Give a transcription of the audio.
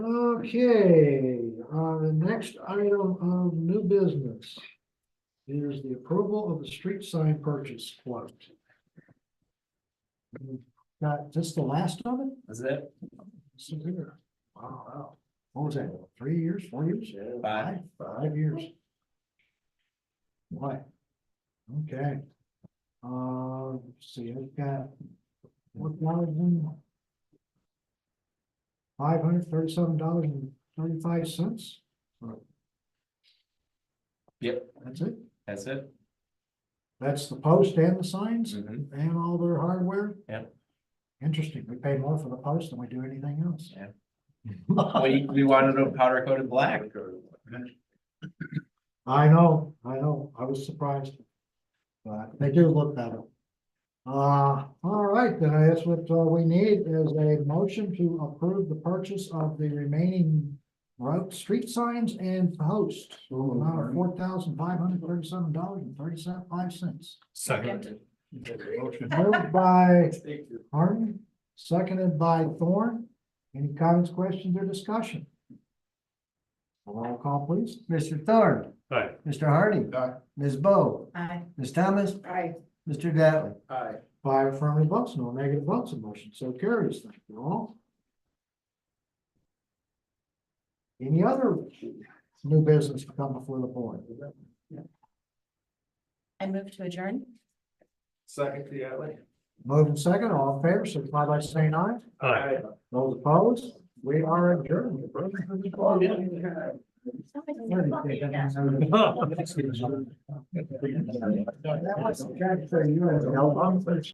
Okay, uh, the next item of new business is the approval of the street sign purchase quote. Got just the last of it? Is it? This is here. Wow, what was that, three years, four years? Five. Five years. Why? Okay. Uh, let's see, I've got. One thousand. Five hundred thirty-seven dollars and thirty-five cents, Yep, that's it, that's it. that's the post and the signs Mhm. and all their hardware. Yep. Interesting, we pay more for the post than we do anything else. Yeah. We, we wanted them powder coated black. I know, I know, I was surprised. But they do look better. Uh, all right, then I guess what uh, we need is a motion to approve the purchase of the remaining. Road, street signs and posts, for an amount of four thousand five hundred thirty-seven dollars and thirty-five cents. Second. Moved by Harden, seconded by Thorne. Any comments, questions, or discussion? Roll call, please. Mr. Thorne. Aye. Mr. Hardy. Aye. Ms. Bo. Aye. Ms. Thomas. Aye. Mr. Dattley. Aye. Five affirmative votes, no negative votes, a motion so carries, thank you all. Any other new business to come before the board? I move to adjourn. Second, the alley. Moving second, all in favor, signify by saying aye. Aye. Those opposed, we are adjourned. That was-